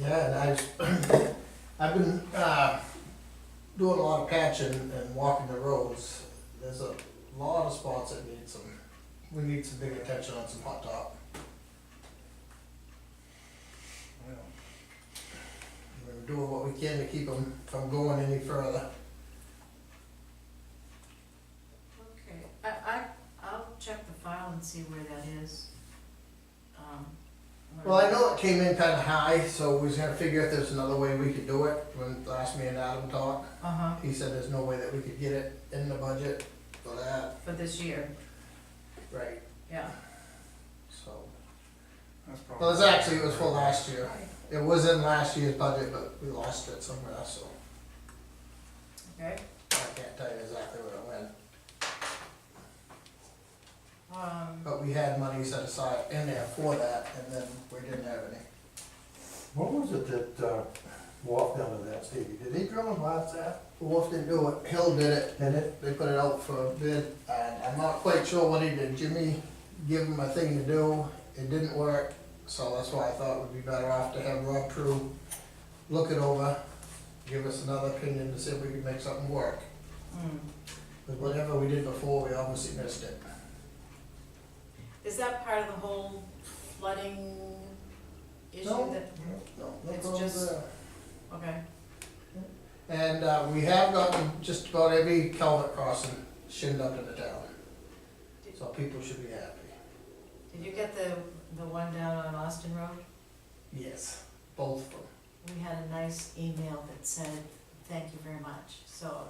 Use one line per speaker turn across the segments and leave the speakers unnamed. Yeah, and I, I've been, uh, doing a lot of patching and walking the roads. There's a lot of spots that need some, we need some big attention on some hot top. We're doing what we can to keep them from going any further.
Okay, I, I, I'll check the file and see where that is. Um, where-
Well, I know it came in kinda high, so we was gonna figure if there's another way we could do it. When last me and Adam talked,
Uh-huh,
he said there's no way that we could get it in the budget for that.
for this year,
Right.
yeah.
So,
That's probably.
well, it's actually, it was for last year. It was in last year's budget, but we lost it somewhere else, so
Okay,
I can't tell you exactly where it went.
um,
But we had money set aside in there for that, and then we didn't have any.
What was it that, uh, walked down to that stadium? Did they drill and blast that?
Wolf didn't do it, Hill did it,
And it,
they put it out for a bid, and I'm not quite sure what he did. Jimmy gave him a thing to do, it didn't work, so that's why I thought it would be better off to have Rob True look it over, give us another opinion to see if we could make something work.
hmm.
But whatever we did before, we obviously missed it.
Is that part of the whole flooding issue
No.
that,
No, no
It's
problem
just-
there.
okay,
And uh, we have gotten just about every culvert crossing shinned up in the town. So people should be happy.
did you get the, the one down on Austin Road?
Yes. Both of them.
we had a nice email that said, thank you very much, so,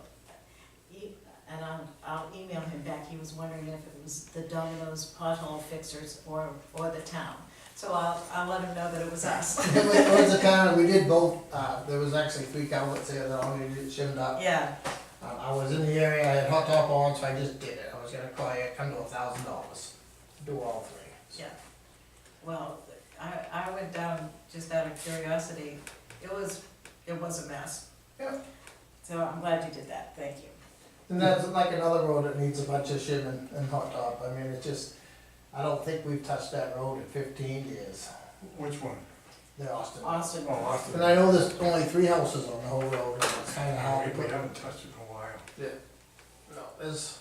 e- and I'll, I'll email him back, he was wondering if it was the Domino's pothole fixers or, or the town. So I'll, I'll let him know that it was us.
It was- it was a kind of, we did both, uh, there was actually three culverts there that all needed shimmed up.
Yeah,
Uh, I was in the area, I had hot top on, so I just did it. I was gonna call you, come to a thousand dollars. Do all three.
yeah. Well, I, I went down just out of curiosity, it was, it was a mess.
Yeah.
So I'm glad you did that, thank you.
And that's like another road that needs a bunch of shimming and hot top. I mean, it's just, I don't think we've touched that road in fifteen years,
Which one?
the Austin.
Austin,
Oh, Austin.
And I know there's only three houses on the whole road, and it's kinda
Yeah,
hard to
We we
put.
haven't touched it in a while.
No, there's,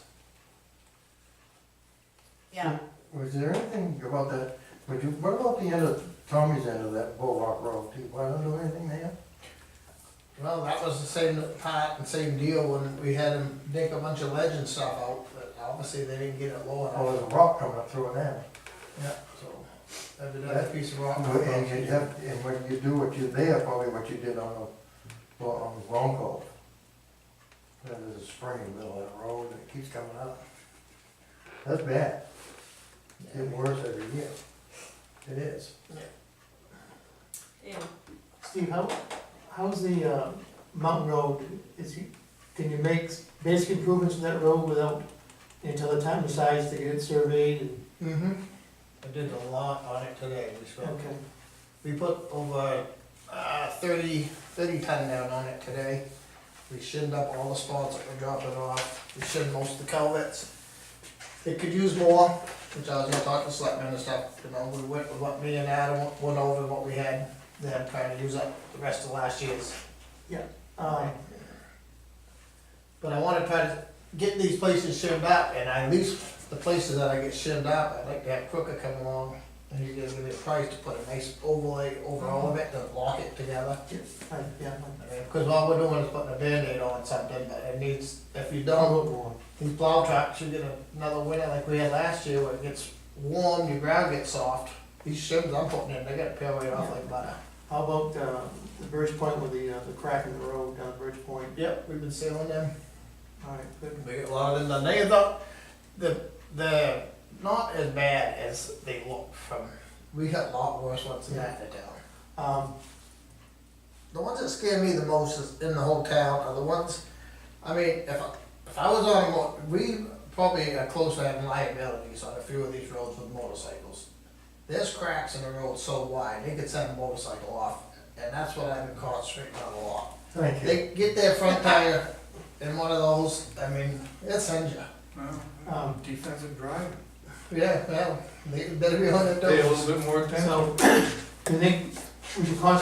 yeah,
was there anything about that, would you, what about the end of, Tommy's end of that Bullock Road, do you wanna do anything there?
well, that was the same part and same deal when we had them dig a bunch of ledge and stuff out, but obviously they didn't get it low
Oh,
enough.
there's a rock coming up through it now.
Yeah, so, every another piece of rock.
And you have, and when you do what you, there, probably what you did on the, well, on Bronco. There's a spring in the middle of that road, and it keeps coming up. That's bad, it's getting worse every year, it is.
yeah.
Steve, how, how's the, uh, Mountain Road, is, you- can you make basic improvements to that road without, until the town decides to get it surveyed and,
Mm-hmm. I did a lot on it today, we spoke.
okay,
We put over, uh, thirty, thirty ton down on it today. We shinned up all the spots that were dropping off, we shinned most of the culverts. It could use more, which I was gonna talk to selectmen and stuff, you know, we went with what me and Adam went over, what we had, then trying to use up the rest of last year's.
um,
But I wanna try to get these places shimmed up, and I, at least the places that I get shimmed up, I'd like to have Crooker come along, and he's gonna give me a price to put a nice overlay over all of it, to lock it together.
I, yeah,
Because all we're doing is putting a Band-Aid on something, but it needs, if you
I don't
don't,
look warm.
these plow trucks, you get another winter like we had last year, where it gets warm, your ground gets soft. These shims I'm putting in, they gotta peel right off like butter.
How about, uh, the Birch Point with the, uh, the crack in the road down at Birch Point?
Yep, we've been sealing them.
All right, good.
We get a lot of them done. They though, the, the, not as bad as they look from, we got a lot worse ones in that town.
Um,
The ones that scare me the most is in the whole town are the ones, I mean, if I, if I was on a mo- we probably are close to having liabilities on a few of these roads with motorcycles. There's cracks in the road so wide, they could send a motorcycle off, and that's what I've been concentrating on a lot.
Thank you.
They get their front tire in one of those, I mean, it sends you.
Well,
Um,
defensive drive,
Yeah, well, they better be on their toes.
pay a little bit more attention.
so, do you think we should concentrate